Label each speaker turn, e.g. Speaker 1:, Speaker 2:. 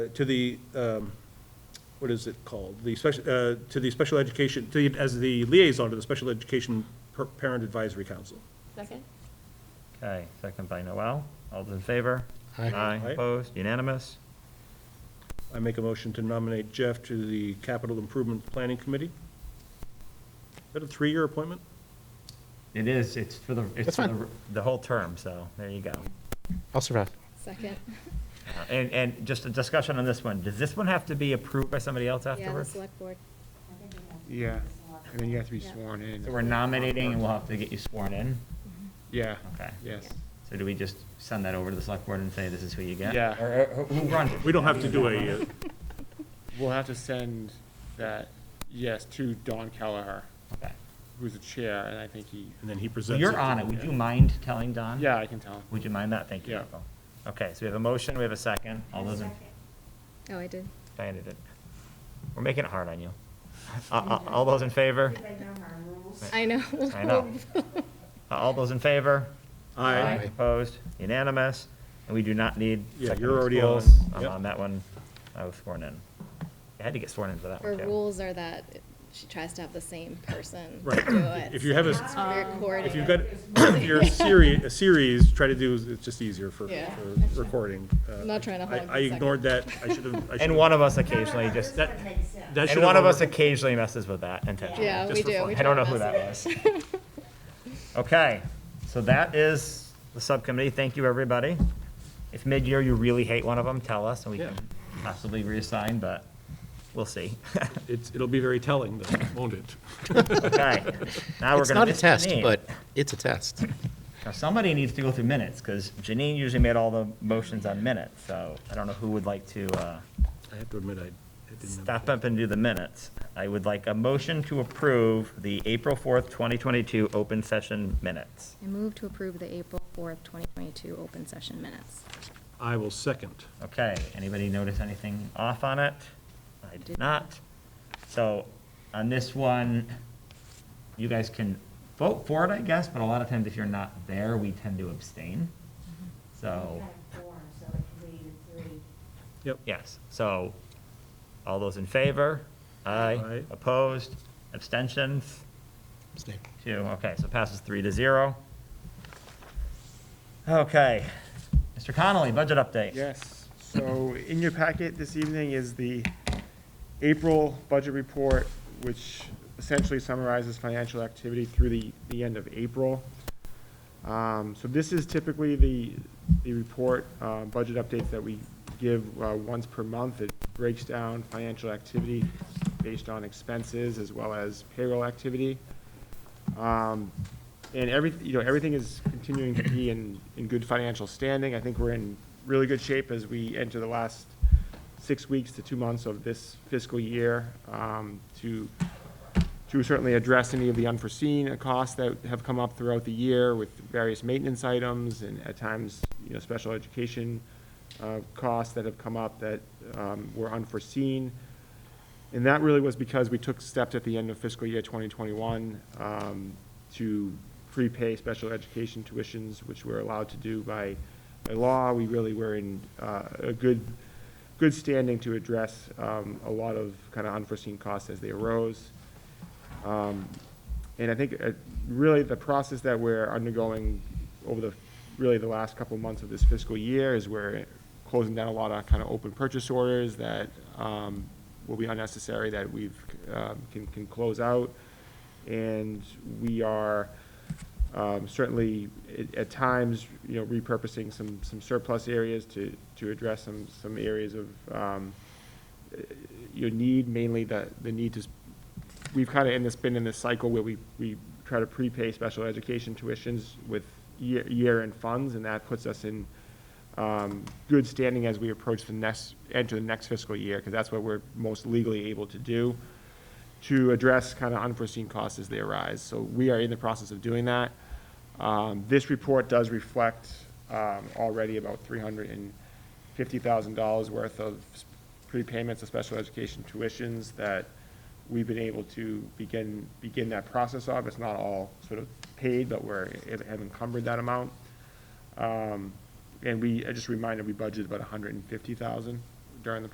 Speaker 1: to the, um, what is it called? The special, uh, to the special education, to, the- as the liaison to the Special Education Per- Parent Advisory Council.
Speaker 2: Second?
Speaker 3: Okay, second by Noel. All those in favor?
Speaker 4: Aye.
Speaker 1: Aye.
Speaker 3: opposed, unanimous?
Speaker 1: I make a motion to nominate Jeff to the Capital Improvement Planning Committee. Is that a three-year appointment?
Speaker 3: It is, it's for the, it's
Speaker 4: That's
Speaker 3: for
Speaker 4: fine.
Speaker 3: the, the whole term, so there you go.
Speaker 4: I'll survive.
Speaker 2: Second.
Speaker 3: Uh, And, and just a discussion on this one. Does this one have to be approved by somebody else
Speaker 2: Yeah, the
Speaker 3: afterwards?
Speaker 2: select board.
Speaker 5: Yeah, and then you have to be
Speaker 2: Yeah.
Speaker 5: sworn in.
Speaker 3: So we're nominating and we'll have to get you sworn in?
Speaker 5: Yeah,
Speaker 3: Okay.
Speaker 5: yes.
Speaker 3: So do we just send that over to the select board and say, this is who you get?
Speaker 5: Yeah.
Speaker 3: Or or who runs it?
Speaker 1: We don't have to do a, uh,
Speaker 5: We'll have to send that, yes, to Don Kelleher,
Speaker 3: Okay.
Speaker 5: who's the chair, and I think he,
Speaker 1: and then he
Speaker 3: So
Speaker 1: presents.
Speaker 3: you're
Speaker 1: to-
Speaker 3: on it. Would you mind telling Don?
Speaker 5: yeah, I can tell him.
Speaker 3: Would you mind that? Thank you,
Speaker 5: Yeah.
Speaker 3: Michael. Okay, so we have a motion, we have a second. All those in,
Speaker 2: Oh, I did.
Speaker 3: Diana did. We're making it hard on you. Uh, uh, All those in favor?
Speaker 2: I know.
Speaker 3: I know. Uh, All those in favor?
Speaker 1: Aye.
Speaker 3: Opposed? Unanimous? And we do not need.
Speaker 1: Yeah,
Speaker 3: second
Speaker 1: you're
Speaker 3: of
Speaker 1: already
Speaker 3: schools.
Speaker 1: on.
Speaker 3: I'm
Speaker 1: Yep.
Speaker 3: on that one. I was sworn in. I had to get sworn into that
Speaker 2: Her
Speaker 3: one, too.
Speaker 2: rules are that she tries to have the same person do
Speaker 1: Right.
Speaker 2: it.
Speaker 1: If you have a,
Speaker 2: It's very
Speaker 1: if you've
Speaker 2: coordinated.
Speaker 1: got, if you're a series, a series, try to do, it's just easier for,
Speaker 2: Yeah.
Speaker 1: for recording. Uh,
Speaker 2: I'm not trying to
Speaker 1: I-
Speaker 2: hog
Speaker 1: I
Speaker 2: the second.
Speaker 1: ignored that. I should have, I should have.
Speaker 3: And one of us occasionally just,
Speaker 1: That, that should
Speaker 3: and
Speaker 1: have
Speaker 3: one of us
Speaker 1: over-
Speaker 3: occasionally messes with that intentionally.
Speaker 2: Yeah,
Speaker 3: just
Speaker 2: we
Speaker 3: for
Speaker 2: do.
Speaker 3: fun.
Speaker 2: We
Speaker 3: I don't
Speaker 2: try
Speaker 3: know
Speaker 2: to
Speaker 3: who that
Speaker 2: mess
Speaker 3: was. Okay, so that is the subcommittee. Thank you, everybody. If mid-year you really hate one of them, tell us and we can possibly reassign, but we'll see.
Speaker 1: It's, it'll be very telling though, won't it?
Speaker 3: Okay, now we're
Speaker 4: It's
Speaker 3: gonna
Speaker 4: not a
Speaker 3: miss
Speaker 4: test,
Speaker 3: Janine.
Speaker 4: but it's a test.
Speaker 3: Now, somebody needs to go through minutes, because Janine usually made all the motions on minutes, so I don't know who would like to, uh,
Speaker 1: I have to admit, I, I didn't have.
Speaker 3: step up and do the minutes. I would like a motion to approve the April fourth, twenty twenty-two open session minutes.
Speaker 6: I move to approve the April 4th, 2022 open session minutes.
Speaker 1: I will second.
Speaker 3: Okay, anybody notice anything off on it? I did not. So on this one, you guys can vote for it, I guess, but a lot of times if you're not there, we tend to abstain. So,
Speaker 1: Yep.
Speaker 3: yes, so all those in favor? Aye.
Speaker 1: Aye.
Speaker 3: Opposed? Abstentions? Two, okay, so passes three to zero. Okay, Mr. Connolly, budget update.
Speaker 5: Yes, so in your packet this evening is the April budget report, which essentially summarizes financial activity through the, the end of April. Um, So this is typically the, the report, uh, budget updates that we give uh, once per month. It breaks down financial activity based on expenses as well as payroll activity. Um, And every, you know, everything is continuing to be in, in good financial standing. I think we're in really good shape as we enter the last six weeks to two months of this fiscal year um, to, to certainly address any of the unforeseen costs that have come up throughout the year with various maintenance items and at times, you know, special education uh, costs that have come up that um, were unforeseen. And that really was because we took steps at the end of fiscal year 2021 um, to prepay special education tuitions, which we're allowed to do by, by law. We really were in uh, a good, good standing to address um, a lot of kind of unforeseen costs as they arose. Um, And I think uh, really the process that we're undergoing over the, really the last couple of months of this fiscal year is we're closing down a lot of kind of open purchase orders that um, will be unnecessary that we've, um, can, can close out. And we are um, certainly at- at times, you know, repurposing some, some surplus areas to, to address some, some areas of, um, your need, mainly the, the need to, s- we've kind of in this, been in this cycle where we, we try to prepay special education tuitions with year, year-end funds, and that puts us in, um, good standing as we approach the next, enter the next fiscal year, because that's what we're most legally able to do, to address kind of unforeseen costs as they arise. So we are in the process of doing that. Um, this report does reflect, um, already about three hundred and fifty thousand dollars worth of s- prepayments of special education tuitions that we've been able to begin, begin that process of. It's not all sort of paid, but we're, have encumbered that amount. Um, and we, I just reminded, we budgeted about a hundred and fifty thousand during the